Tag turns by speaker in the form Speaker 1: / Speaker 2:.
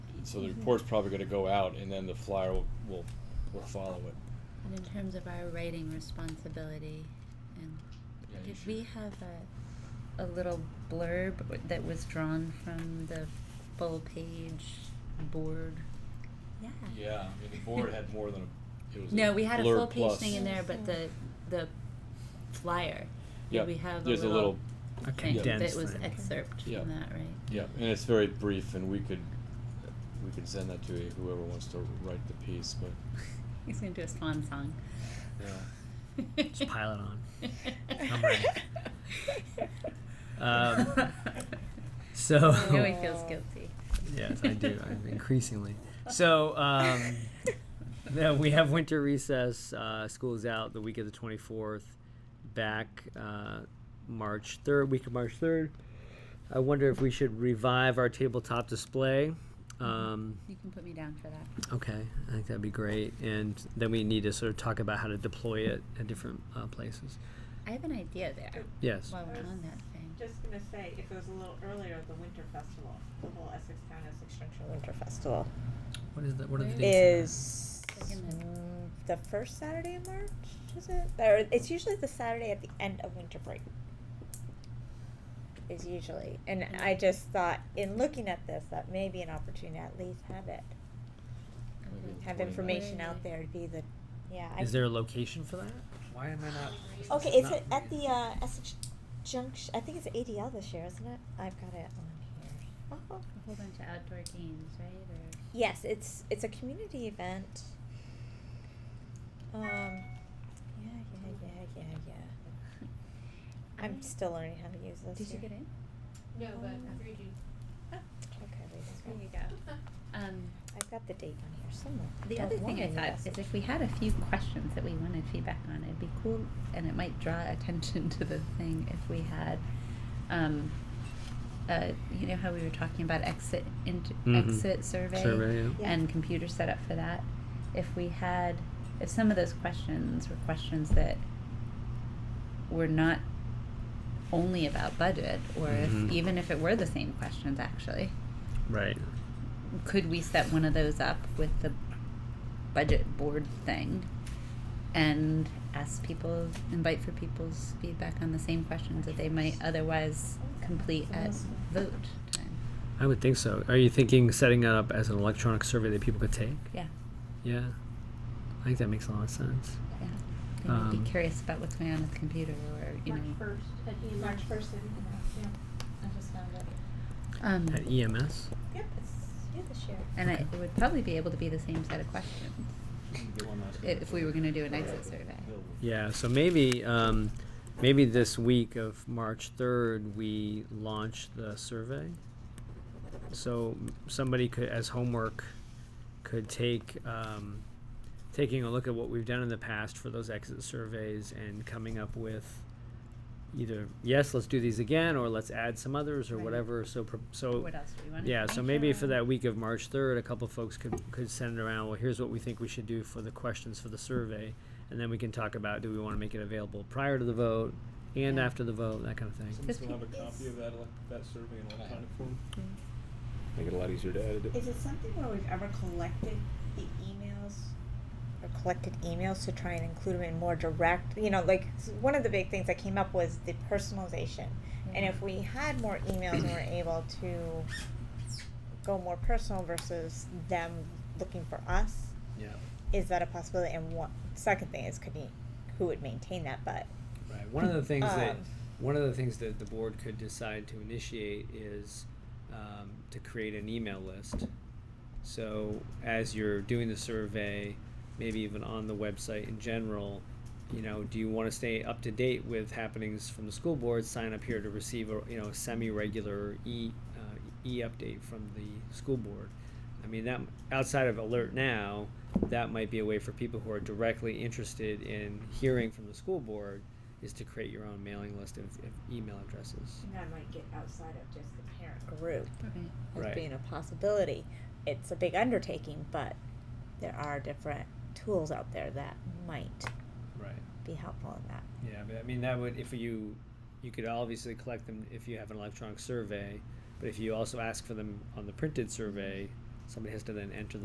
Speaker 1: so
Speaker 2: Mm-hmm.
Speaker 1: the report's probably going to go out, and then the flyer will will, will follow it.
Speaker 2: And in terms of our writing responsibility, and
Speaker 3: Yeah, you
Speaker 2: did
Speaker 3: should.
Speaker 2: we have a, a little blurb that was drawn from the full page board? Yeah.
Speaker 1: Yeah, I mean the board had more than a. It was
Speaker 2: No, we had a
Speaker 1: blurb
Speaker 2: full page
Speaker 1: plus.
Speaker 2: thing in there, but the, the flyer,
Speaker 1: Yeah,
Speaker 2: did we have a
Speaker 1: there's a
Speaker 2: little
Speaker 1: little-
Speaker 4: A
Speaker 2: thing that
Speaker 4: condensed
Speaker 2: was
Speaker 4: thing.
Speaker 2: excerpt
Speaker 1: Yeah.
Speaker 2: from that, right?
Speaker 1: Yeah, and it's very brief, and we could we could send that to whoever wants to write the piece, but
Speaker 2: He's gonna do a swan song.
Speaker 4: Just pile it on.
Speaker 2: I'm
Speaker 4: ready. Um, so
Speaker 2: I know he feels guilty.
Speaker 4: yes, I do. I'm increasingly. So um, no, we have winter recess. Uh, school is out the week of the 24th. Back uh, March 3rd, week of March 3rd. I wonder if we should revive our tabletop display. Um,
Speaker 2: You can put me down for that.
Speaker 4: Okay, I think that'd be great. And then we need to sort of talk about how to deploy it at different uh, places.
Speaker 2: I have an idea there.
Speaker 4: Yes.
Speaker 2: While we're on that thing.
Speaker 5: Just gonna say, if it was a little earlier, the winter festival, the whole Essex Town Essex Junction Winter Festival
Speaker 4: What is that? What are the
Speaker 2: Where
Speaker 4: dates?
Speaker 5: is
Speaker 2: Second
Speaker 5: mm, the first Saturday in March, is it? Or it's usually the Saturday at the end of winter break. Is usually, and I just thought in looking at this that may be an opportunity to at least have it,
Speaker 1: Maybe the
Speaker 5: have
Speaker 1: 29th.
Speaker 5: information out there to be the, yeah. I-
Speaker 4: Is there a location for that? Why am I not?
Speaker 5: Okay, it's at- at the uh, Essex Junction. I think it's ADL this year, isn't it? I've got it on here. Oh.
Speaker 2: A whole bunch of outdoor games, right?
Speaker 5: Yes, it's it's a community event. Um, yeah, yeah, yeah, yeah, yeah.
Speaker 2: Or
Speaker 5: I'm still learning how to use this.
Speaker 2: Did you
Speaker 5: here.
Speaker 2: get in?
Speaker 6: No, but
Speaker 5: Um,
Speaker 6: three G.
Speaker 5: Okay, wait. I've
Speaker 2: There
Speaker 5: got-
Speaker 2: you go. Um,
Speaker 5: I've got the date on here somewhere.
Speaker 2: the
Speaker 5: Don't
Speaker 2: other thing I
Speaker 5: worry,
Speaker 2: thought
Speaker 5: yes.
Speaker 2: is if we had a few questions that we wanted feedback on, it'd be cool, and it might draw attention to the thing if we had, um, uh, you know how we were talking about exit into
Speaker 4: Mhm.
Speaker 2: exit survey,
Speaker 4: Survey, yeah.
Speaker 5: Yeah.
Speaker 2: and computer setup for that. If we had, if some of those questions were questions that were not only about budget, or
Speaker 4: Mhm.
Speaker 2: if even if it were the same questions actually,
Speaker 4: Right.
Speaker 2: could we set one of those up with the budget board thing and ask people invite for people's feedback on the same questions that they might otherwise complete at vote time
Speaker 4: I would think so. Are you thinking setting it up as an electronic survey that people could take?
Speaker 2: yeah
Speaker 4: Yeah. I think that makes a lot of sense.
Speaker 2: yeah they might
Speaker 4: Um,
Speaker 2: be curious about what's going on with the computer or you
Speaker 6: March
Speaker 2: know
Speaker 6: first at E. March first at Yeah, I just found it.
Speaker 2: um,
Speaker 4: At E EMS.
Speaker 5: Yep, it's due this year.
Speaker 2: and I, it would probably be able to be the same set of questions if we were going to do an exit survey
Speaker 4: Yeah. So maybe um, maybe this week of March third we launch the survey. So m- somebody could, as homework, could take um, taking a look at what we've done in the past for those exit surveys and coming up with either yes, let's do these again, or let's add some others or
Speaker 2: Right.
Speaker 4: whatever. So pro- so
Speaker 2: what else do we want
Speaker 4: Oh, yeah, so maybe for that week of March third, a couple folks could, could send it around, well, here's what we think we should do for the questions for the survey. And then we can talk about, do we wanna make it available prior to the vote and
Speaker 2: Yeah.
Speaker 4: after the vote, that kind of thing.
Speaker 2: Does
Speaker 1: Someone have a
Speaker 2: pe-
Speaker 1: copy of that, elec- that survey in electronic form?
Speaker 7: Make it a lot easier to edit it.
Speaker 8: Is it something where we've ever collected the emails?
Speaker 5: or collected emails to try and include them in more direct you know like s- one of the big things that came up was the personalization and if we
Speaker 8: Mm-hmm.
Speaker 5: had more emails and were able to go more personal versus them looking for us
Speaker 4: Yeah,
Speaker 5: is that a possibility and what second thing is could be who would maintain that but
Speaker 4: right. One of the things
Speaker 5: Um,
Speaker 4: that, one of the things that the board could decide to initiate is, um, to create an email list. So as you're doing the survey, maybe even on the website in general, you know, do you want to stay up to date with happenings from the school board? Sign up here to receive a you know semi-regular e uh, e update from the school board. I mean that outside of alert now, that might be a way for people who are directly interested in hearing from the school board is to create your own mailing list of, of email addresses.
Speaker 8: And that might get outside of just the parent group.
Speaker 5: group
Speaker 2: Right.
Speaker 5: as
Speaker 4: Right.
Speaker 5: being a possibility it's a big undertaking but there are different tools out there that might
Speaker 4: Right.
Speaker 5: be helpful in that
Speaker 4: Yeah, but I mean that would if you you could obviously collect them if you have an electronic survey, but if you also ask for them on the printed survey, somebody has to then enter